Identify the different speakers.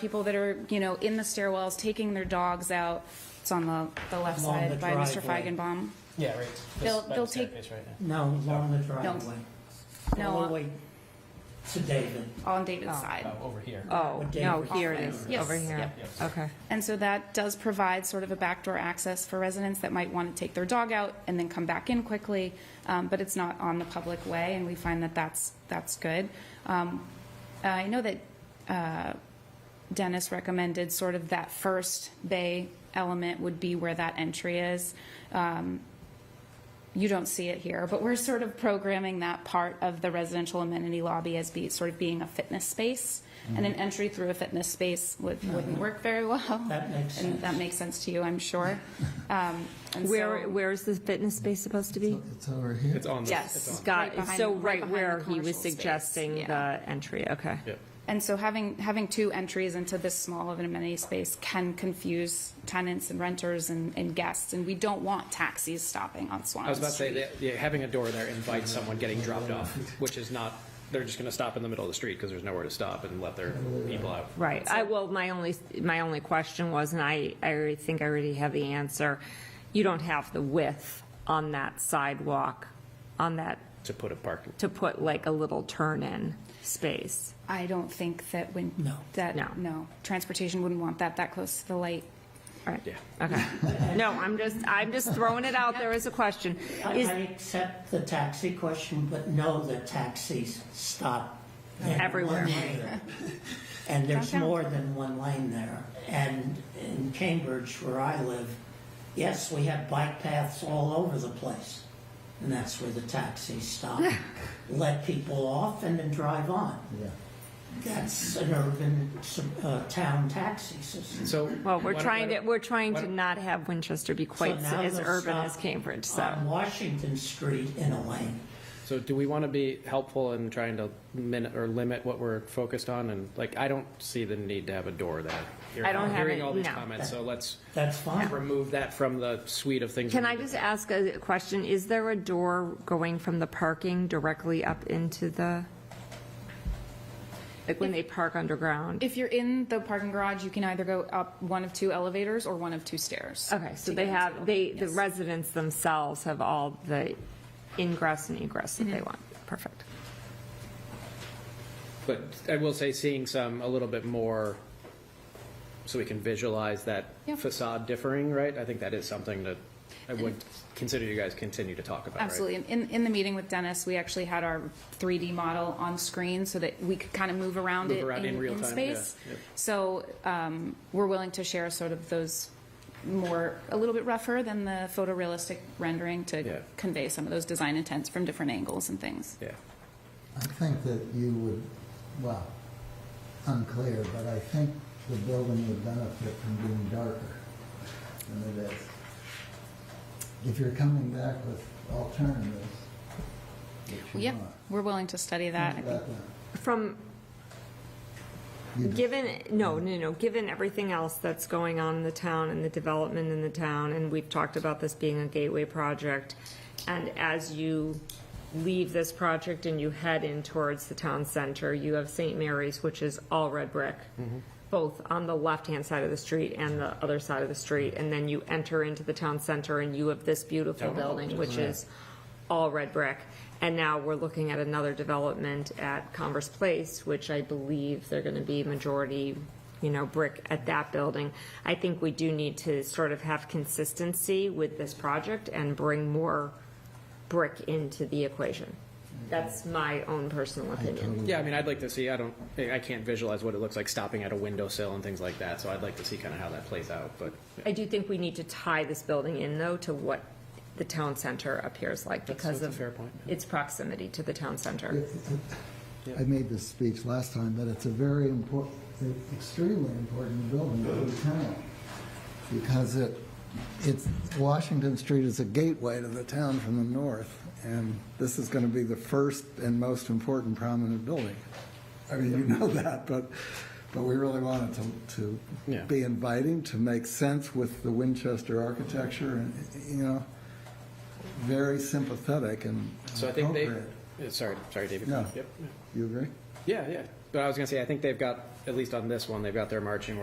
Speaker 1: people that are, you know, in the stairwells, taking their dogs out. It's on the, the left
Speaker 2: Along
Speaker 1: side
Speaker 2: the
Speaker 1: by Mr.
Speaker 2: driveway.
Speaker 1: Feigenbaum.
Speaker 3: Yeah, right.
Speaker 1: They'll-
Speaker 3: Just by
Speaker 1: they'll
Speaker 3: the
Speaker 1: take-
Speaker 3: staircase right now.
Speaker 2: No, along the driveway.
Speaker 4: uh,
Speaker 2: All the
Speaker 1: No,
Speaker 2: way to David.
Speaker 1: on David's
Speaker 4: Oh.
Speaker 1: side.
Speaker 3: Oh, over here.
Speaker 4: Oh,
Speaker 2: Or
Speaker 4: no,
Speaker 2: David.
Speaker 4: here it is,
Speaker 1: Yes,
Speaker 4: over here.
Speaker 3: yep.
Speaker 4: Okay.
Speaker 1: And so that does provide sort of a backdoor access for residents that might want to take their dog out and then come back in quickly, um, but it's not on the public way, and we find that that's, that's good. Um, I know that uh, Dennis recommended sort of that first bay element would be where that entry is. Um, You don't see it here, but we're sort of programming that part of the residential amenity lobby as be, sort of being a fitness space,
Speaker 2: Mm-hmm.
Speaker 1: and an entry through a fitness space would, wouldn't work very well.
Speaker 2: That makes
Speaker 1: And that
Speaker 2: sense.
Speaker 1: makes sense to you, I'm sure. Um, and
Speaker 4: Where,
Speaker 1: so-
Speaker 4: where is the fitness space supposed to be?
Speaker 5: It's over here.
Speaker 6: It's on the.
Speaker 4: Yes,
Speaker 6: it's on-
Speaker 4: got,
Speaker 1: Right behind-
Speaker 4: so
Speaker 1: right
Speaker 4: right
Speaker 1: behind
Speaker 4: where
Speaker 1: the
Speaker 4: he
Speaker 1: commercial
Speaker 4: was
Speaker 1: space,
Speaker 4: suggesting
Speaker 1: yeah.
Speaker 4: the entry, okay.
Speaker 6: Yeah.
Speaker 1: And so having, having two entries into this small of an amenity space can confuse tenants and renters and, and guests, and we don't want taxis stopping on
Speaker 6: I was
Speaker 1: Swanton
Speaker 6: about to say,
Speaker 1: Street.
Speaker 6: that, yeah, having a door there invites someone getting dropped off, which is not, they're just gonna stop in the middle of the street because there's nowhere to stop and let their people out.
Speaker 4: Right, I, well, my only, my only question was, and I, I already think I already have the answer, you don't have the width on that sidewalk, on that,
Speaker 6: To put a parking.
Speaker 4: to put like a little turn-in space.
Speaker 1: I don't think that when,
Speaker 2: No.
Speaker 4: No.
Speaker 1: that, no, transportation wouldn't want that that close to the light.
Speaker 4: Right.
Speaker 6: Yeah.
Speaker 4: Okay. No, I'm just, I'm just throwing it out there as a question.
Speaker 2: I,
Speaker 4: Is
Speaker 2: I accept the taxi question, but know that taxis stop. in one
Speaker 4: Everywhere.
Speaker 2: lane. And there's
Speaker 1: Downtown.
Speaker 2: more than one lane there. And in Cambridge, where I live, yes, we have bike paths all over the place. And that's where the taxis stop, let people off and then drive on. That's an urban, uh, town taxi system.
Speaker 6: So.
Speaker 4: Well,
Speaker 6: why
Speaker 4: we're
Speaker 6: don't-
Speaker 4: trying
Speaker 6: why
Speaker 4: to,
Speaker 6: don't-
Speaker 4: we're trying
Speaker 6: why
Speaker 4: to
Speaker 6: don't-
Speaker 4: not have Winchester be quite
Speaker 2: So now
Speaker 4: as
Speaker 2: they'll
Speaker 4: urban
Speaker 2: stop Um,
Speaker 4: as Cambridge, so.
Speaker 2: On Washington Street in a lane.
Speaker 6: So do we want to be helpful in trying to min, or limit what we're focused on? And like, I don't see the need to have a door there. You're
Speaker 4: I don't have
Speaker 6: Hearing
Speaker 4: it,
Speaker 6: all these
Speaker 4: no.
Speaker 6: comments, so let's
Speaker 2: That's fine.
Speaker 6: remove that from the suite of things. we
Speaker 4: Can I
Speaker 6: need to-
Speaker 4: just ask a question? Is there a door going from the parking directly up into the, like when they park underground?
Speaker 1: If you're in the parking garage, you can either go up one of two elevators or one of two stairs.
Speaker 4: Okay, so
Speaker 1: to
Speaker 4: they
Speaker 1: get into
Speaker 4: have,
Speaker 1: the-
Speaker 4: they, the
Speaker 1: yes.
Speaker 4: residents themselves have all the ingress and egress
Speaker 1: Mm-hmm.
Speaker 4: that they want. Perfect.
Speaker 6: But I will say, seeing some, a little bit more, so we can visualize that
Speaker 1: Yeah.
Speaker 6: facade differing, right? I think that is something that I would consider you guys continue to talk about, right?
Speaker 1: Absolutely. And in, in the meeting with Dennis, we actually had our 3D model on screen so that we could kind of move around
Speaker 6: Move
Speaker 1: it
Speaker 6: around in
Speaker 1: in,
Speaker 6: real
Speaker 1: in
Speaker 6: time,
Speaker 1: space.
Speaker 6: yeah, yeah.
Speaker 1: So um, we're willing to share sort of those more, a little bit rougher than the photorealistic rendering
Speaker 6: Yeah.
Speaker 1: to convey some of those design intents from different angles and things.
Speaker 6: Yeah.
Speaker 5: I think that you would, well, unclear, but I think the building would benefit from being darker than it is. If you're coming back with alternatives,
Speaker 1: Well,
Speaker 5: which you
Speaker 1: yeah,
Speaker 5: want.
Speaker 1: we're willing to study that. I think
Speaker 5: that one.
Speaker 4: From,
Speaker 5: You just-
Speaker 4: Given, no, no, no, given everything else that's going on in the town and the development in the town, and we've talked about this being a gateway project, and as you leave this project and you head in towards the town center, you have St. Mary's, which is all red brick, both on the left-hand side of the street and the other side of the street, and then you enter into the town center and you have this beautiful building, which is all red brick. And now we're looking at another development at Converse Place, which I believe they're going to be majority, you know, brick at that building. I think we do need to sort of have consistency with this project and bring more brick into the equation. That's my own personal opinion.
Speaker 6: Yeah, I mean, I'd like to see, I don't, I can't visualize what it looks like stopping at a windowsill and things like that, so I'd like to see kind of how that plays out, but
Speaker 4: I do think we need to tie this building in, though, to what the town center appears like because
Speaker 6: that's
Speaker 4: of
Speaker 6: a fair point,
Speaker 4: its proximity to the town center.
Speaker 5: I made this speech last time, but it's a very important, extremely important building to the town. Because it, it's, Washington Street is a gateway to the town from the north. And this is going to be the first and most important prominent building. I mean, you know that, but, but we really wanted to,
Speaker 6: Yeah.
Speaker 5: to be inviting, to make sense with the Winchester architecture and, you know, very sympathetic and
Speaker 6: So I think they,
Speaker 5: appropriate.
Speaker 6: yeah, sorry, sorry, David.
Speaker 5: No.
Speaker 6: Yep.
Speaker 5: You agree?
Speaker 6: Yeah, yeah, But I was gonna say, I think they've got, at least on this one, they've got their marching